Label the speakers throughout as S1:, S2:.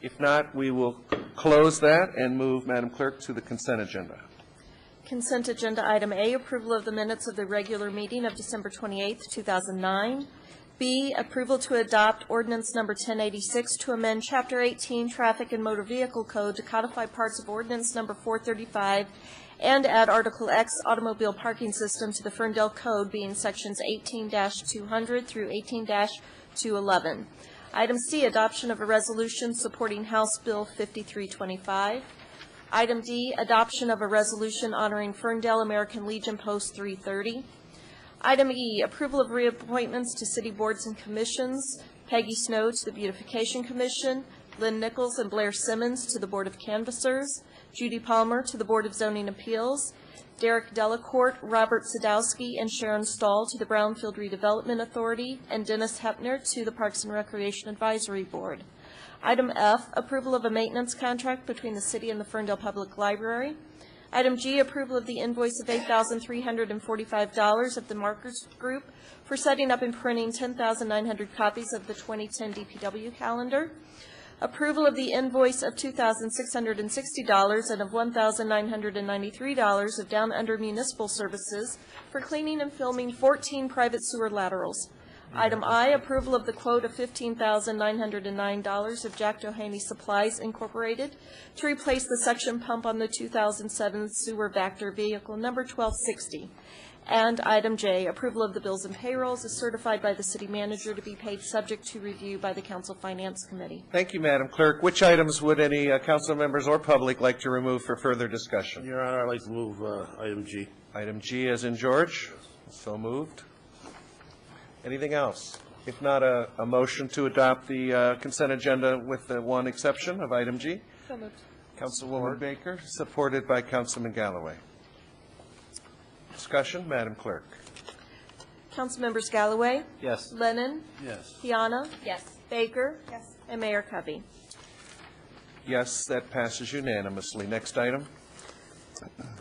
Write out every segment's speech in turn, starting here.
S1: If not, we will close that and move, Madam Clerk, to the consent agenda.
S2: Consent agenda item A, approval of the minutes of the regular meeting of December 28th, 2009. B, approval to adopt ordinance number 1086 to amend Chapter 18 Traffic and Motor Vehicle Code to codify parts of ordinance number 435 and add Article X Automobile Parking System to the Ferndale Code being sections 18-200 through 18-211. Item C, adoption of a resolution supporting House Bill 5325. Item D, adoption of a resolution honoring Ferndale American Legion Post 330. Item E, approval of reappointments to city boards and commissions. Peggy Snow to the Beautification Commission, Lynn Nichols and Blair Simmons to the Board of Canvassers, Judy Palmer to the Board of Zoning Appeals, Derek Delacorte, Robert Sadowski, and Sharon Stahl to the Brownfield Redevelopment Authority, and Dennis Hepner to the Parks and Recreation Advisory Board. Item F, approval of a maintenance contract between the city and the Ferndale Public Library. Item G, approval of the invoice of $8,345 of the Markers Group for setting up and printing 10,900 copies of the 2010 DPW calendar. Approval of the invoice of $2,660 and of $1,993 of Down Under Municipal Services for cleaning and filming 14 private sewer laterals. Item I, approval of the quote of $15,909 of Jack Doheny Supplies Incorporated to replace the suction pump on the 2007 sewer Vector vehicle number 1260. And item J, approval of the bills and payrolls is certified by the city manager to be paid subject to review by the council finance committee.
S1: Thank you, Madam Clerk. Which items would any uh, council members or public like to remove for further discussion?
S3: Your Honor, I'd like to move uh, item G.
S1: Item G as in George. So moved. Anything else? If not, a, a motion to adopt the uh, consent agenda with the one exception of item G. Councilwoman Baker, supported by Councilman Galloway. Discussion, Madam Clerk.
S2: Councilmembers Galloway,
S3: Yes.
S2: Lennon,
S3: Yes.
S2: Piana,
S4: Yes.
S2: Baker. Yes. And Mayor Covey.
S1: Yes, that passes unanimously. Next item.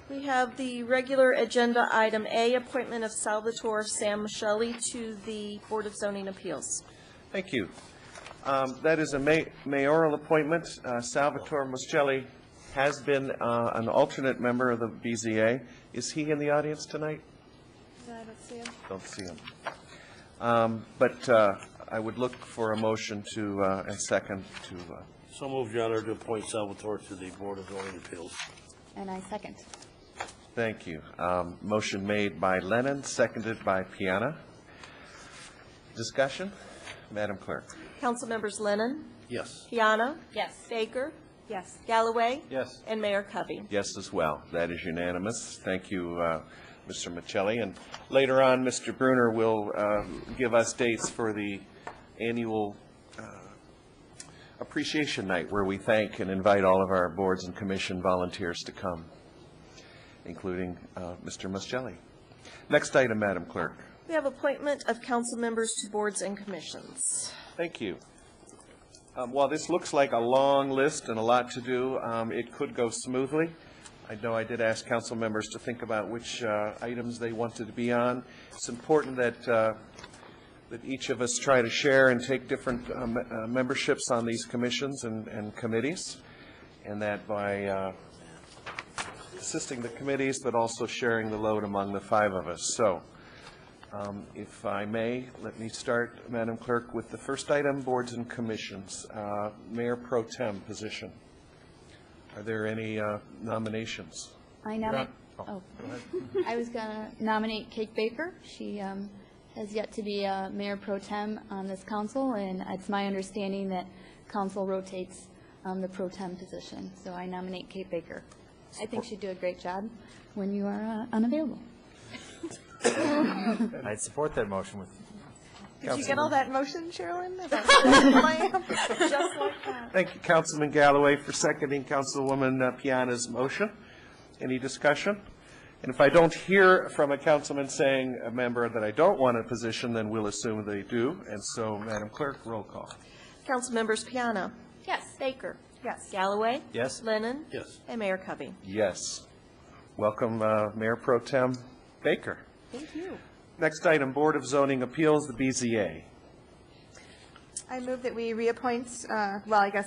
S2: We have the regular agenda item A, appointment of Salvatore Sam Michelli to the Board of Zoning Appeals.
S1: Thank you. Um, That is a ma- mayoral appointment. Uh, Salvatore Muscelli has been uh, an alternate member of the BZA. Is he in the audience tonight? I don't see him. Don't see him. Um, But uh, I would look for a motion to, uh, and second to, uh,
S3: So moved, Your Honor, to appoint Salvatore to the Board of Zoning Appeals.
S4: And I second.
S1: thank you. Um, Motion made by Lennon, seconded by Piana. Discussion? Madam Clerk.
S2: Councilmembers Lennon,
S3: Yes.
S2: Piana,
S4: Yes.
S2: Baker,
S4: Yes.
S2: Galloway,
S3: Yes.
S2: and Mayor Covey.
S1: Yes, as well. That is unanimous. Thank you, uh, Mr. Michelli. And later on, Mr. Bruner will uh, give us dates for the annual uh, appreciation night, where we thank and invite all of our boards and commission volunteers to come, including uh, Mr. Michelli. Next item, Madam Clerk.
S2: We have appointment of council members to boards and commissions.
S1: Thank you. Um, While this looks like a long list and a lot to do, um, it could go smoothly. I know I did ask council members to think about which uh, items they wanted to be on. It's important that, uh, that each of us try to share and take different um, uh, memberships on these commissions and- and committees, and that by uh, assisting the committees, but also sharing the load among the five of us. So um, If I may, let me start, Madam Clerk, with the first item, boards and commissions, Uh, Mayor Pro Tem position. Are there any uh, nominations?
S4: I nominate, oh, I was gonna nominate Kate Baker. She um, has yet to be uh, mayor pro tem on this council, and it's my understanding that council rotates um, the pro tem position, so I nominate Kate Baker. I think she'd do a great job when you are uh, unavailable.
S5: I'd support that motion with,
S6: Did you get all that motion, Sherilyn?
S1: Thank you, Councilman Galloway, for seconding Councilwoman uh, Piana's motion. Any discussion? And if I don't hear from a councilman saying a member that I don't want a position, then we'll assume they do. And so, Madam Clerk, roll call.
S2: Councilmembers Piana,
S4: Yes.
S2: Baker,
S6: Yes.
S2: Galloway,
S5: yes?
S2: Lennon,
S3: Yes.
S2: and Mayor Covey.
S1: Yes. Welcome, uh, Mayor Pro Tem Baker.
S6: Thank you.
S1: Next item, Board of Zoning Appeals, the BZA.
S6: I move that we reappoint, uh, well, I guess